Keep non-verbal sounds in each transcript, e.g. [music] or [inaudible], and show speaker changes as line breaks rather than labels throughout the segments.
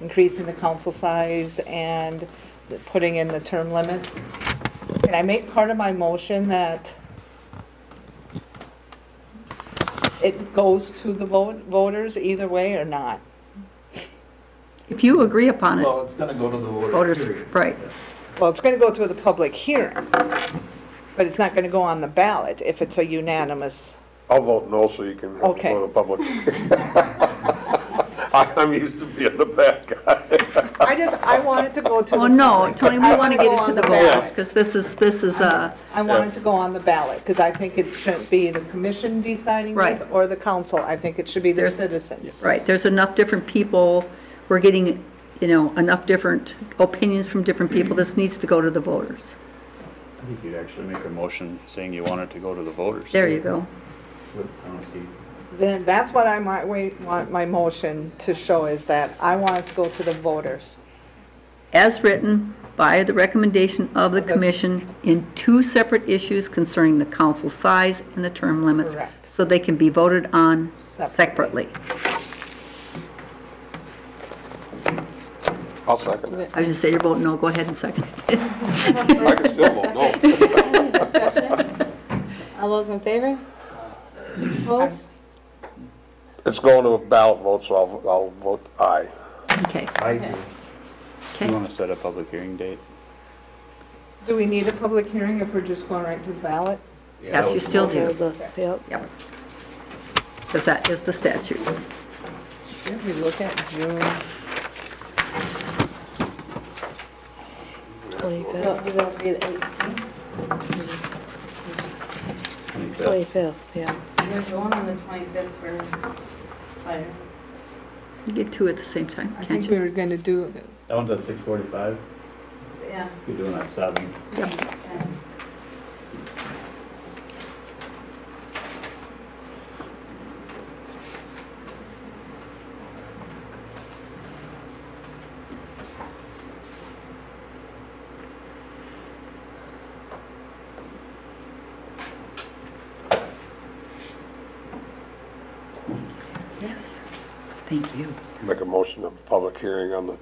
increasing the council size and the- putting in the term limits. Can I make part of my motion that it goes to the vote- voters either way or not?
If you agree upon it,
Well, it's gonna go to the voters,
voters,
period.
right.
Well, it's going to go to the public hearing, but it's not going to go on the ballot if it's a unanimous.
I'll vote no so you can have to
Okay.
go to public. [laughs] I'm used to being the bad guy.
I just, I want it to go to the.
Oh, no,
public.
Tony, we
I
want to get it to the
go on ballot.
voters, because this is, this is uh, a,
I want it to go on the ballot, because I think it shouldn't be the commission deciding this
Right.
or the council. I think it should be the
There's-
citizens.
right, there's enough different people, we're getting, you know, enough different opinions from different people, this needs to go to the voters.
I think you'd actually make a motion saying you want it to go to the voters.
There you go.
I don't see-
Then that's what I might, wait- want my motion to show is that I want it to go to the voters.
as written by the recommendation of the commission in two separate issues concerning the council size and the term limits.
Correct.
So they can be voted on
Separately.
separately.
I'll second it.
I just say your vote no, go ahead and second it. [laughs]
I can still vote no.
Any discussion? All those in favor? Opposed?
It's going to a ballot vote, so I'll, I'll vote aye.
Okay,
I do.
You
okay.
want to set a public hearing date?
Do we need a public hearing if we're just going right to the ballot?
Yes, you still do.
Regardless, yep.
Yep. Because that is the statute.
If we look at June,
25th,
Does that be the 18th?
25th, yeah.
There's one on the 25th for fire.
You get two at the same time,
I
can't
think we
you?
were going to do,
That one's at six forty-five,
So, Yeah.
you're doing at seven.
Yep.
yeah.
Yes. Thank you.
Make a motion of public hearing on the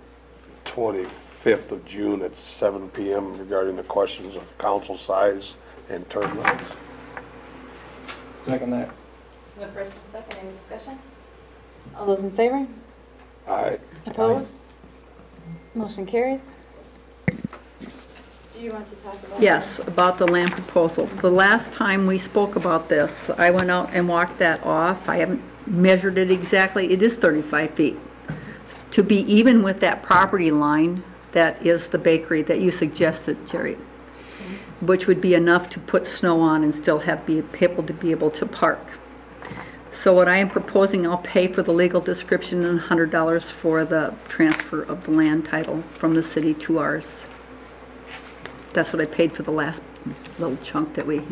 25th of June at 7 PM regarding the questions of council size and term limits.
Second that.
The first and second, any discussion? All those in favor?
Aye.
Opposed? Motion carries. Do you want to talk about?
Yes, about the land proposal. The last time we spoke about this, I went out and walked that off. I haven't measured it exactly. It is 35 feet. To be even with that property line, that is the bakery that you suggested, Jerry, which would be enough to put snow on and still have be- people to be able to park. So what I am proposing, I'll pay for the legal description and $100 for the transfer of the land title from the city to ours. That's what I paid for the last little chunk that we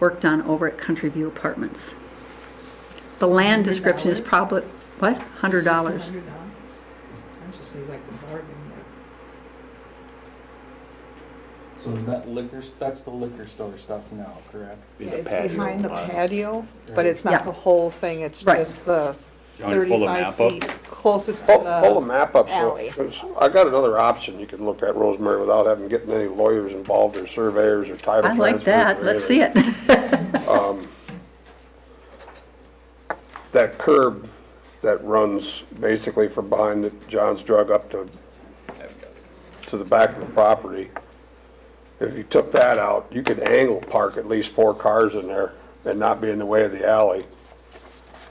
worked on over at Country View Apartments. The land description is
$100?
probably, what, $100?
$100. That just seems like a bargain.
So is that liquor, that's the liquor store stuff now, correct?
Be the
It's
patio
behind the
lot.
patio, but it's
Yeah.
not the whole thing, it's
Right.
just the
You want me to pull the
35
map up?
feet closest to
Pull, pull the
the,
map up. so-
alley.
'cause I got another option you can look at, Rosemary, without having, getting any lawyers involved or surveyors or title
I
transfers.
like that,
or
let's see
anything.
it. [laughs]
That curb that runs basically from behind the John's Drug up to, to the back of the property. If you took that out, you could angle park at least four cars in there and not be in the way of the alley.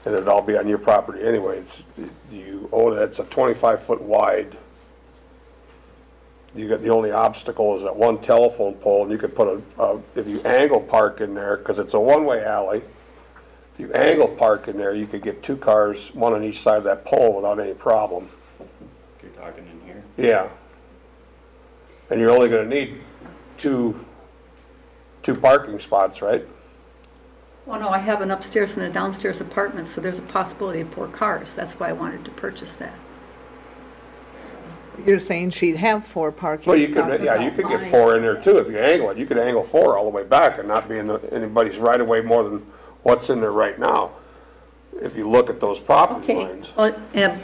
And it'd all be on your property anyways. You own, it's a twenty-five foot wide. You got, the only obstacle is that one telephone pole and you could put a, a, if you angle park in there, cause it's a one-way alley. If you angle park in there, you could get two cars, one on each side of that pole without any problem.
You're talking in here.
Yeah. And you're only gonna need two, two parking spots, right?
Well, Oh, no, I have an upstairs and a downstairs apartment, so there's a possibility of four cars. That's why I wanted to purchase that.
you're saying she'd have four parking
Well, you
spots
could, yeah, you
without
could get
buying.
four in there too if you angle it. You could angle four all the way back and not be in the- anybody's right away more than what's in there right now. If you look at those property
Okay,
lines.
well, Oh, and